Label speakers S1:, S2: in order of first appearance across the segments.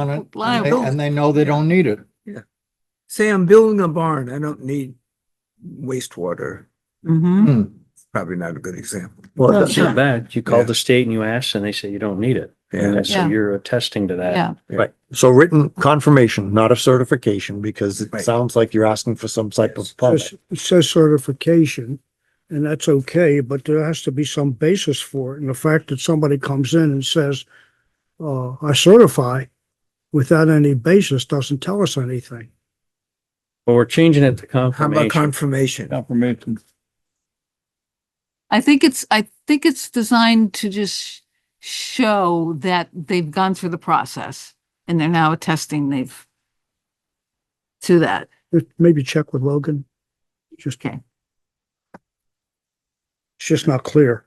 S1: on it, and they-
S2: Liable.
S1: and they know they don't need it.
S3: Say I'm building a barn, I don't need wastewater,
S2: Mm-hmm.
S1: Hmm.
S3: probably not a good example.
S4: Well,
S2: No,
S4: that's
S2: sure.
S4: not bad. You
S3: Yeah.
S4: call the state and you ask and they say you don't need it. And
S3: Yeah,
S4: that's-
S2: Yeah.
S4: so you're attesting to that.
S2: Yeah,
S5: Right, so written confirmation, not a certification, because it
S3: Right.
S5: sounds like you're asking for some type of permit.
S6: It says certification, and that's okay, but there has to be some basis for it. And the fact that somebody comes in and says, uh, I certify without any basis doesn't tell us anything.
S4: But we're changing it to
S3: how about confirmation?
S4: confirmation.
S7: Confirmation.
S2: I think it's, I think it's designed to just show that they've gone through the process and they're now attesting they've to that.
S6: Just Maybe check with Logan. Just,
S2: Okay.
S6: it's just not clear.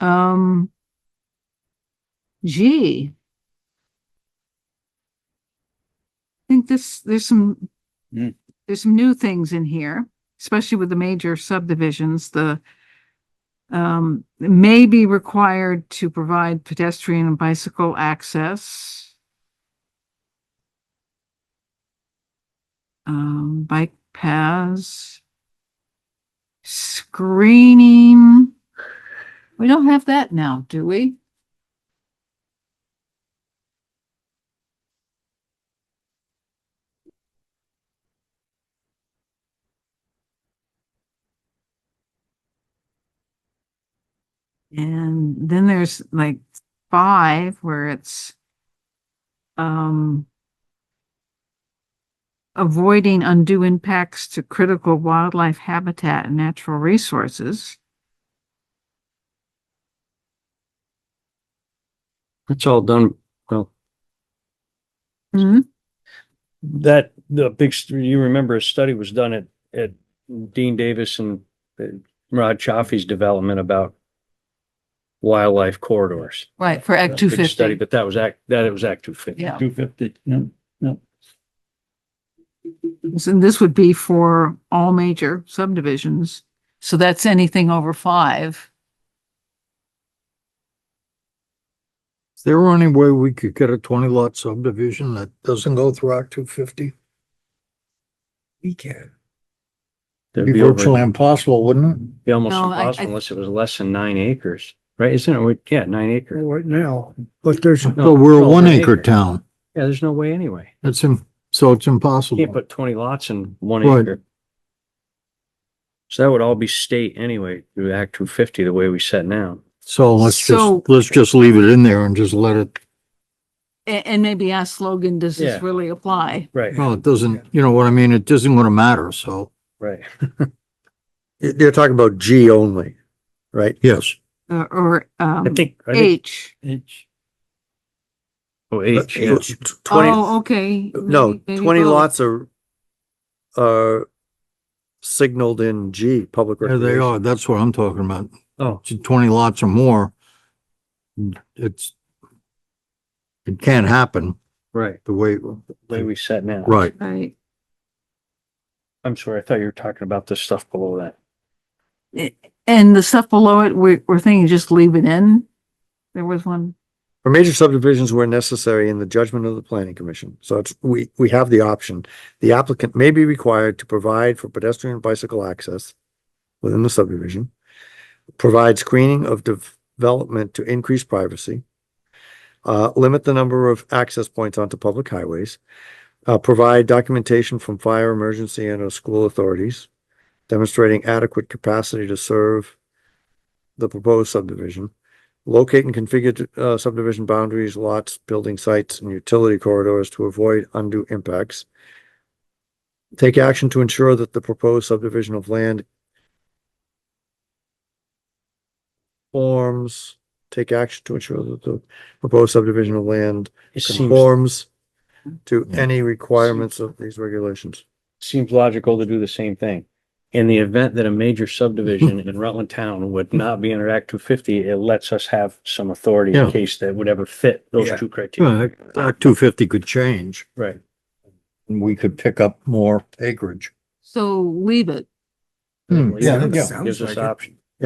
S2: Um, gee. I think this, there's some,
S7: Hmm.
S2: there's some new things in here, especially with the major subdivisions, the um, may be required to provide pedestrian and bicycle access. Um, bike paths. Screening. We don't have that now, do we? And then there's like five where it's um avoiding undue impacts to critical wildlife habitat and natural resources.
S4: It's all done. Well, that, the big, st- you remember a study was done at, at Dean Davis and uh, Rod Chaffee's development about wildlife corridors.
S2: Right, for Act
S4: Big
S2: two
S4: Study,
S2: fifty.
S4: but that was act, that was act two fifty.
S2: Yeah.
S7: Two fifty, yeah.
S2: And this would be for all major subdivisions. So that's anything over five.
S1: Is there any way we could get a twenty lot subdivision that doesn't go through Act two fifty?
S3: We can.
S4: That'd
S1: Be
S4: be over-
S1: virtually impossible, wouldn't
S4: Be almost
S2: No, I- I-
S4: impossible unless it was less than nine acres, right? Isn't it? We- Yeah, nine acres.
S6: right now, but there's,
S1: it?
S4: No,
S1: So we're a
S4: it's all
S1: one
S4: nine
S1: acre
S4: acres.
S1: town.
S4: Yeah, there's no way anyway.
S1: It's in, so it's impossible.
S4: Can't put twenty lots in one
S1: Right.
S4: acre. So that would all be state anyway, through Act two fifty, the way we set now.
S1: So let's
S2: So-
S1: just, let's just leave it in there and just let it,
S2: A- And, maybe ask Logan, does
S4: Yeah.
S2: this really apply?
S4: Right,
S1: well, it doesn't, you know what I mean? It isn't gonna matter, so.
S4: right.
S5: You- You're talking about G only, right?
S1: Yes.
S2: Uh, Or,
S4: I
S2: um,
S4: think, I think,
S2: H?
S7: Each.
S4: oh, H, yeah.
S5: It's tw-
S2: Oh,
S5: Twenty,
S2: okay.
S5: no,
S2: Maybe- maybe
S5: twenty
S2: both.
S5: lots are, are signaled in G, public.
S1: There they
S5: recreation.
S1: are. That's what I'm talking about.
S4: Oh,
S1: to twenty lots or more, it's, it can't happen
S4: right,
S1: the way,
S4: the way we set now.
S1: right.
S2: Right.
S4: I'm sorry, I thought you were talking about the stuff below that.
S2: And the stuff below it, we're, we're thinking just leave it in? There was one.
S5: For major subdivisions where necessary in the judgment of the planning commission, so it's, we, we have the option. The applicant may be required to provide for pedestrian and bicycle access within the subdivision. Provide screening of development to increase privacy. Uh, limit the number of access points onto public highways. Uh, provide documentation from fire, emergency, and or school authorities demonstrating adequate capacity to serve the proposed subdivision locate and configure uh, subdivision boundaries, lots, building sites, and utility corridors to avoid undue impacts. Take action to ensure that the proposed subdivision of land forms, take action to ensure that the proposed subdivision of land
S4: It seems,
S5: conforms to any requirements of these regulations.
S4: seems logical to do the same thing. In the event that a major subdivision in Rutland Town would not be under Act two fifty, it lets us have some authority in
S1: Yeah.
S4: case that would ever fit those
S3: Yeah.
S4: two criteria.
S1: Yeah, Act two fifty could change
S4: Right.
S1: and we could pick up more acreage.
S2: So leave it.
S1: Hmm,
S4: Yeah,
S1: yeah.
S4: gives us
S3: Sounds like it.
S4: option.